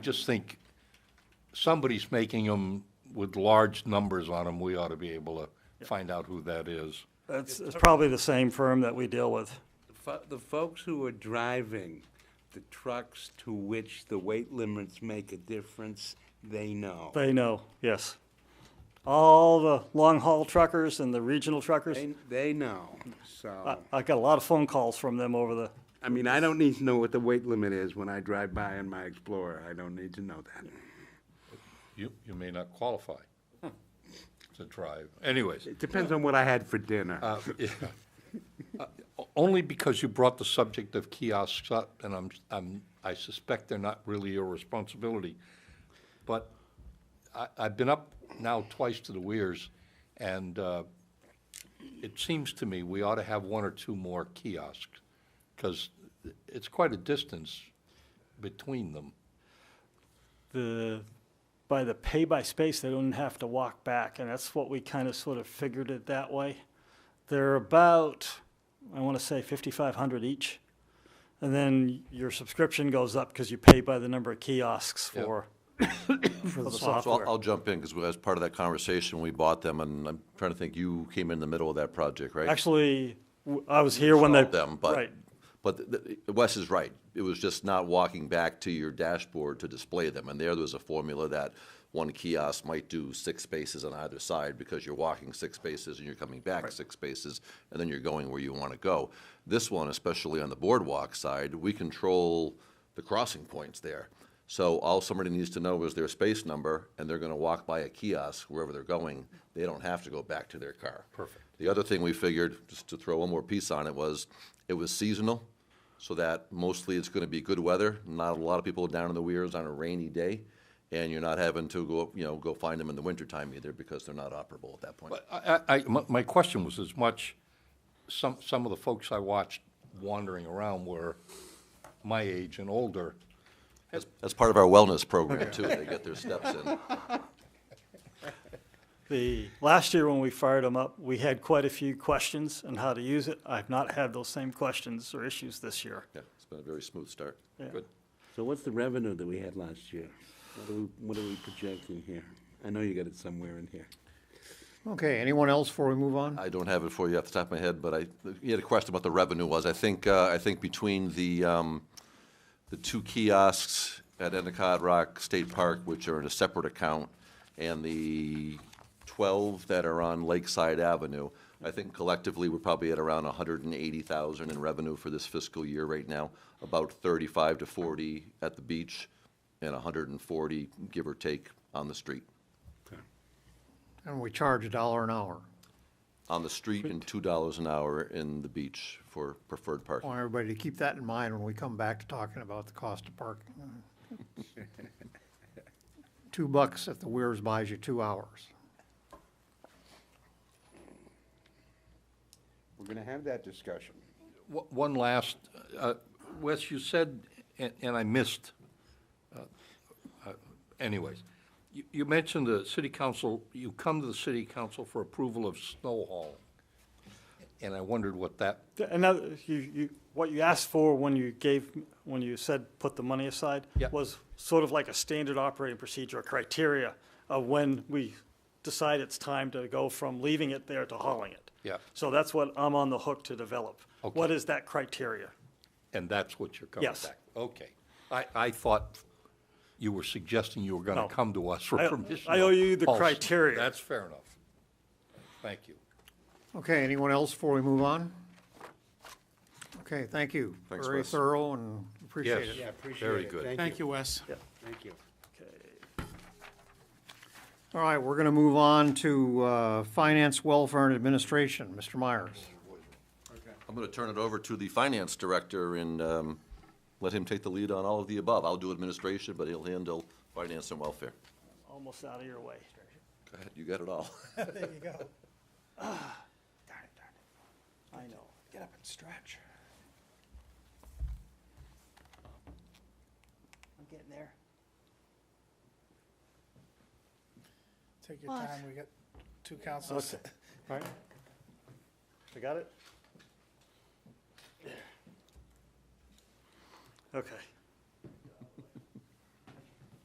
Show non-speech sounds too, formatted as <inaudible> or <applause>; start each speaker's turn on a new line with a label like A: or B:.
A: just think somebody's making them with large numbers on them. We ought to be able to find out who that is.
B: That's, it's probably the same firm that we deal with.
C: The fo- The folks who are driving the trucks to which the weight limits make a difference, they know.
B: They know, yes. All the long haul truckers and the regional truckers,
C: They, they know,
B: I,
C: so,
B: I got a lot of phone calls from them over the,
C: Uh, I mean, I don't need to know what the weight limit is when I drive by in my Explorer, I don't need to know that.
A: You, you may not qualify to drive. Anyways,
C: It depends on what I had for dinner.
A: uh, yeah. Uh, o- only because you brought the subject of kiosks up, and I'm, I'm, I suspect they're not really your responsibility. But I, I've been up now twice to the Weirs, and uh, it seems to me we ought to have one or two more kiosks, because it's quite a distance between them.
B: the, by the pay by space, they don't have to walk back, and that's what we kind of sort of figured it that way. They're about, I want to say fifty-five hundred each. And then your subscription goes up because you pay by the number of kiosks
A: Yep.
B: <coughs> for, for the
D: So- So I'll-
B: software.
D: I'll jump in, because as part of that conversation, we bought them, and I'm trying to think, you came in the middle of that project, right?
B: Actually, w- I was here when they.
D: Sold them, but,
B: Right,
D: but th- th- Wes is right. It was just not walking back to your dashboard to display them. And there, there was a formula that one kiosk might do six spaces on either side, because you're walking six spaces and you're coming back six spaces, and then you're going where you want to go. This one, especially on the boardwalk side, we control the crossing points there. So all somebody needs to know is their space number, and they're gonna walk by a kiosk wherever they're going. They don't have to go back to their car. Perfect. The other thing we figured, just to throw one more piece on it, was it was seasonal, so that mostly it's gonna be good weather, not a lot of people down in the weirs on a rainy day, and you're not having to go, you know, go find them in the wintertime either, because they're not operable at that point.
A: But I, I- I- my, my question was as much, some, some of the folks I watched wandering around were my age and older.
D: That's, that's part of our wellness program too, they get their steps in.
B: The, last year when we fired them up, we had quite a few questions on how to use it. I've not had those same questions or issues this year.
D: Yeah, it's been a very smooth start.
A: Good.
C: So what's the revenue that we had last year? What are we, what are we projecting here? I know you got it somewhere in here.
E: Okay, anyone else before we move
A: Uh,
E: on?
D: I don't have it for you off the top of my head, but I, you had a question about the revenue was. I think, uh, I think between the, um, the two kiosks at Endicott Rock State Park, which are in a separate account, and the twelve that are on Lakeside Avenue, I think collectively, we're probably at around hundred and eighty thousand in revenue for this fiscal year right now, about thirty-five to forty at the beach, and hundred and forty, give or take, on the street.
E: And we charge a dollar an hour.
D: on the street and two dollars an hour in the beach for preferred
E: I
D: parking.
E: want everybody to keep that in mind when we come back to talking about the cost of parking. <laughs> Two bucks if the Weirs buys you two hours.
C: We're gonna have that discussion.
A: Wha- One last, uh, Wes, you said, and and I missed, uh, uh, anyways, you- you mentioned the city council, you come to the city council for approval of snow haul. And I wondered what that,
B: Th- Another, you, you, what you asked for when you gave, when you said put the money aside
A: Yeah.
B: was sort of like a standard operating procedure, a criteria of when we decide it's time to go from leaving it there to hauling it.
A: Yeah.
B: So that's what I'm on the hook to develop.
A: Okay.
B: What is that criteria?
A: and that's what you're coming back?
B: Yes.
A: Okay. I, I thought you were suggesting you were going
B: No.
A: to come to us for
B: I-
A: permission.
B: I owe
A: to
B: you the
A: haul snow.
B: criteria.
A: That's fair enough. Thank you.
E: Okay, anyone else before we move on? Okay, thank you.
D: Thanks,
E: Very
D: Wes.
E: thorough and appreciate
A: Yes.
E: it.
C: Yeah, appreciate it.
A: Very good.
F: Thank you, Wes.
C: Thank you.
E: All right, we're gonna move on to, uh, Finance, Welfare, and Administration, Mr. Myers.
D: I'm gonna turn it over to the finance director and, um, let him take the lead on all of the above. I'll do administration, but he'll handle finance and welfare.
B: Almost out of your way.
D: Go ahead, you got it all. <laughs>
B: There you go. I know. Get up and stretch.
G: I'm getting there.
F: Take your
G: What?
F: time, we got two councils.
B: Right. I got it? Okay.